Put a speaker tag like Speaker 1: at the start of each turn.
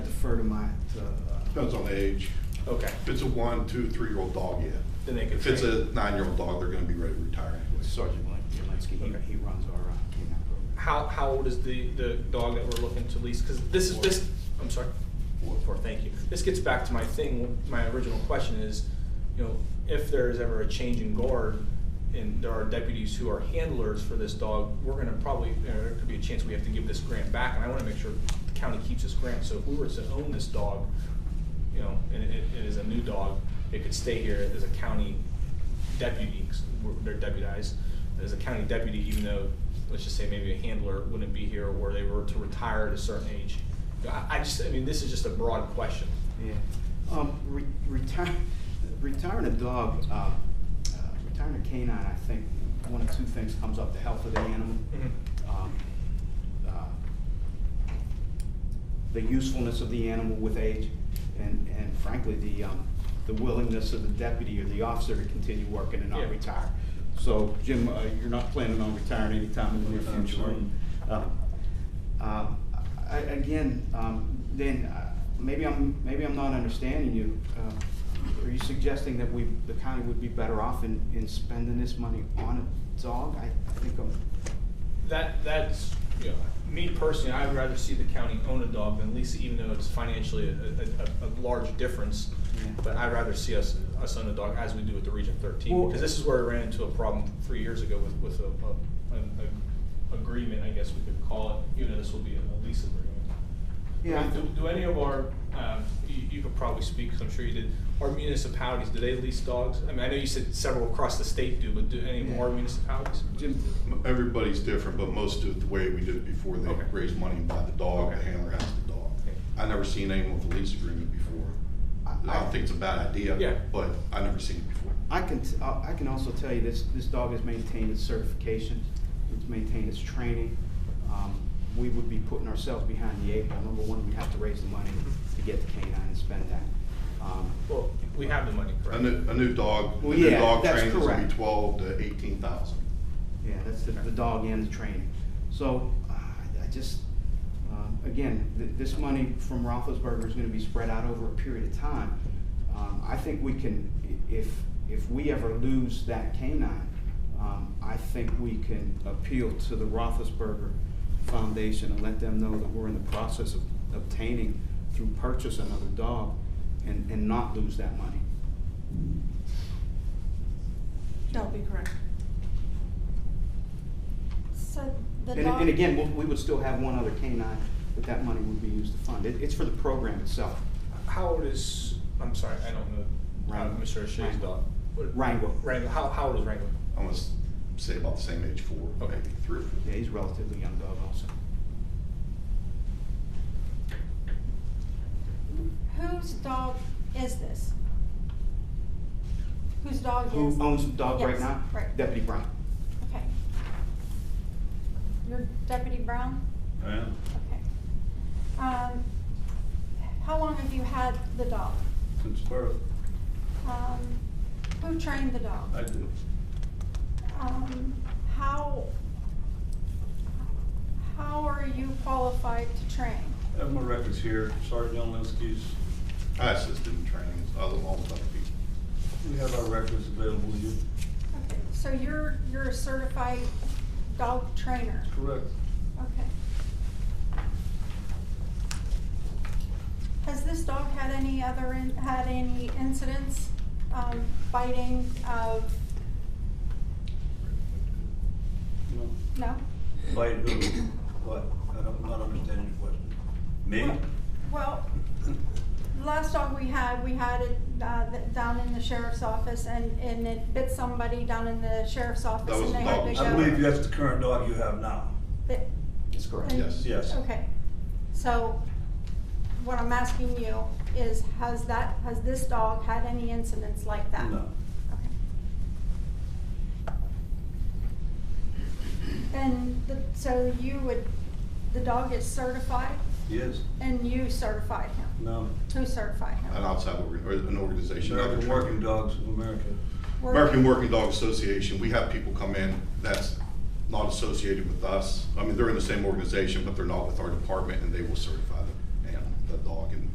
Speaker 1: refer to my, to, uh,
Speaker 2: Depends on age.
Speaker 3: Okay,
Speaker 2: If it's a one, two, three-year-old dog, yeah.
Speaker 3: Then they could
Speaker 2: If it's a
Speaker 3: train.
Speaker 2: nine-year-old dog, they're gonna be ready to retire anyway.
Speaker 1: Sergeant Jelinski,
Speaker 3: Okay.
Speaker 1: he, he runs our uh, canine program.
Speaker 3: how, how old is the, the dog that we're looking to lease? Because this is, this, I'm sorry, Four, four, thank you. This gets back to my thing, my original question is, you know, if there is ever a change in guard and there are deputies who are handlers for this dog, we're gonna probably, you know, there could be a chance we have to give this grant back, and I wanna make sure the county keeps this grant, so if we were to own this dog, you know, and it, it is a new dog, it could stay here as a county deputy, 'cause we're- they're deputized, as a county deputy, even though, let's just say maybe a handler wouldn't be here, or they were to retire at a certain age. I, I just, I mean, this is just a broad question.
Speaker 1: Yeah. Um, re- retire, retiring a dog, uh, uh, retiring a canine, I think, one of two things comes up, the health of the animal.
Speaker 3: Mm-hmm.
Speaker 1: um, uh, the usefulness of the animal with age, and, and frankly, the, um, the willingness of the deputy or the officer to continue working and
Speaker 3: Yeah.
Speaker 1: not retire. So, Jim, uh, you're not planning on retiring anytime in the near
Speaker 4: Anytime
Speaker 1: future?
Speaker 4: soon.
Speaker 1: Um, um, I, again, um, then, uh, maybe I'm, maybe I'm not understanding you. Uh, Are you suggesting that we, the county would be better off in, in spending this money on a dog? I, I think I'm,
Speaker 3: That, that's, you know, me personally, I'd rather see the county own a dog than lease it, even though it's financially a, a, a, a large difference.
Speaker 1: Yeah.
Speaker 3: But I'd rather see us, us own a dog as we do with the Region thirteen,
Speaker 1: Well-
Speaker 3: because this is where I ran into a problem three years ago with, with a, a, an a- agreement, I guess we could call it, even though this will be a lease agreement.
Speaker 1: Yeah.
Speaker 3: Do, do any of our, um, you, you could probably speak, 'cause I'm sure you did, our municipalities, do they lease dogs? I mean, I know you said several across the state do, but do any more
Speaker 1: Yeah.
Speaker 3: municipalities?
Speaker 1: Jim,
Speaker 2: M- Everybody's different, but most do it the way we did it before. They
Speaker 3: Okay.
Speaker 2: raise money and buy the dog, the
Speaker 3: Okay.
Speaker 2: handler has the dog.
Speaker 3: Okay.
Speaker 2: I never seen anyone with a lease agreement before.
Speaker 1: I-
Speaker 2: I don't think it's a bad idea.
Speaker 3: Yeah.
Speaker 2: But I never seen it before.
Speaker 1: I can, t- I I can also tell you this, this dog has maintained its certification, it's maintained its training. Um, We would be putting ourselves behind the eight ball. Number one, we have to raise the money to get the canine and spend that. Um,
Speaker 3: Well, we have the money,
Speaker 2: A
Speaker 3: correct?
Speaker 2: new, a new dog, a
Speaker 1: Well,
Speaker 2: new
Speaker 1: yeah,
Speaker 2: dog
Speaker 1: that's
Speaker 2: train is gonna
Speaker 1: correct.
Speaker 2: be twelve to eighteen thousand.
Speaker 1: Yeah, that's the, the dog and the training. So, uh, I I just, um, again, th- this money from Roethlisberger is gonna be spread out over a period of time. Um, I think we can, i- if, if we ever lose that canine, um, I think we can appeal to the Roethlisberger Foundation and let them know that we're in the process of obtaining through purchase another dog and, and not lose that money.
Speaker 5: That would be correct.
Speaker 6: So the
Speaker 1: And,
Speaker 6: dog.
Speaker 1: and again, we'll- we would still have one other canine that that money would be used to fund. It, it's for the program itself.
Speaker 3: How old is, I'm sorry, I don't know, uh,
Speaker 1: Wrangler.
Speaker 3: Mr. Shea's
Speaker 1: Wrangler.
Speaker 3: dog? What-
Speaker 1: Wrangler.
Speaker 3: Wrangler, how, how old is Wrangler?
Speaker 2: I must say about the same age, four,
Speaker 3: Okay.
Speaker 2: maybe three or four.
Speaker 1: Yeah, he's a relatively young dog also.
Speaker 6: Whose dog is this? Whose dog is?
Speaker 1: Who owns the dog right
Speaker 6: Yes,
Speaker 1: now?
Speaker 6: right.
Speaker 1: Deputy Brown.
Speaker 6: Okay. Your deputy Brown?
Speaker 2: Yeah.
Speaker 6: Okay. Um, how long have you had the dog?
Speaker 4: Since birth,
Speaker 6: Um, who trained the dog?
Speaker 4: I do.
Speaker 6: Um, how, how are you qualified to train?
Speaker 4: I have my records here, Sergeant Jelinski's.
Speaker 2: I assisted in trainings, other, all the other people.
Speaker 4: We have our records available to you.
Speaker 6: Okay, so you're, you're a certified dog trainer?
Speaker 4: Correct.
Speaker 6: Okay. Has this dog had any other, in- had any incidents, um, biting of,
Speaker 4: No.
Speaker 6: no?
Speaker 4: Bite who? What? I don't, not understanding your question. Me?
Speaker 6: Well, the last dog we had, we had it, uh, th- down in the sheriff's office and, and it bit somebody down in the sheriff's office
Speaker 2: was
Speaker 6: and
Speaker 2: a
Speaker 6: they had
Speaker 2: dog.
Speaker 6: to go.
Speaker 4: I believe that's the current dog you have now.
Speaker 6: It-
Speaker 1: That's correct.
Speaker 6: and-
Speaker 2: Yes.
Speaker 4: Yes.
Speaker 6: Okay, so what I'm asking you is, has that, has this dog had any incidents like that?
Speaker 4: No.
Speaker 6: Okay. And the, so you would, the dog is certified
Speaker 4: Yes?
Speaker 6: and you certified him?
Speaker 4: No.
Speaker 6: Who certified
Speaker 2: An
Speaker 6: him?
Speaker 2: outside, org- or an organization. other
Speaker 4: American
Speaker 2: trainer.
Speaker 4: Working Dogs of America.
Speaker 6: Were-
Speaker 2: American Working Dog Association, we have people come in that's not associated with us. I mean, they're in the same organization, but they're not with our department, and they will certify the animal, the dog, and